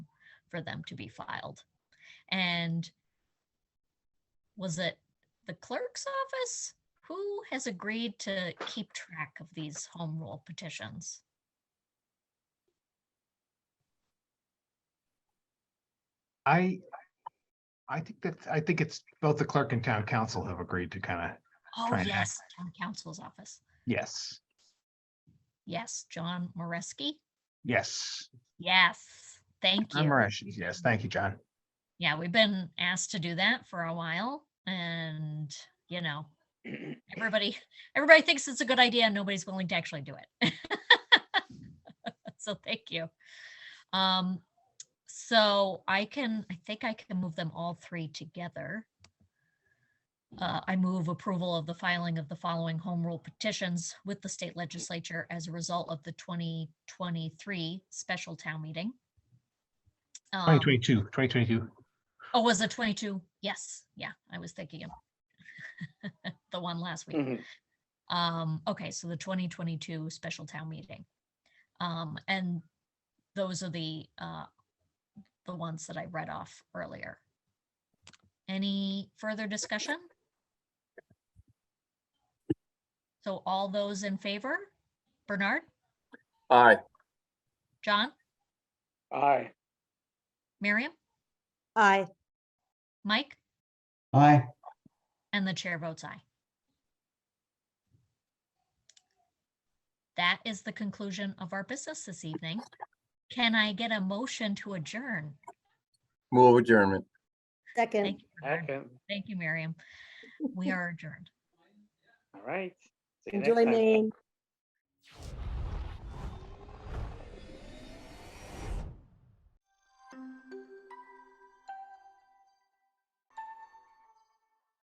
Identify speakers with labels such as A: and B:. A: for them to be filed. And was it the clerk's office? Who has agreed to keep track of these home rule petitions?
B: I, I think that, I think it's both the clerk and town council have agreed to kind of,
A: Oh,
B: Trying to-
A: yes, town council's office.
B: yes,
A: Yes, John Moreski.
B: yes.
A: Yes, thank
B: I'm
A: you.
B: Marisha. Yes, thank you, John.
A: Yeah, we've been asked to do that for a while and, you know, everybody, everybody thinks it's a good idea and nobody's willing to actually do it. So thank you. Um, so I can, I think I can move them all three together. Uh, I move approval of the filing of the following home rule petitions with the state legislature as a result of the 2023 special town meeting. Um,
B: 2022, 2022.
A: Oh, was it 22? Yes, yeah, I was thinking of the one last week.
C: Mhm.
A: Um, okay, so the 2022 special town meeting. Um, and those are the, uh, the ones that I read off earlier. Any further discussion? So all those in favor? Bernard,
D: Aye.
A: John,
C: Aye.
A: Miriam,
E: Aye.
A: Mike,
F: Aye.
A: and the chair votes aye. That is the conclusion of our business this evening. Can I get a motion to adjourn?
D: Move adjournment.
E: Second.
A: Thank you, Bernard.
C: Second.
A: Thank you, Miriam. We are adjourned.
C: All right. See you next
E: Enjoy
C: time.
E: Maine.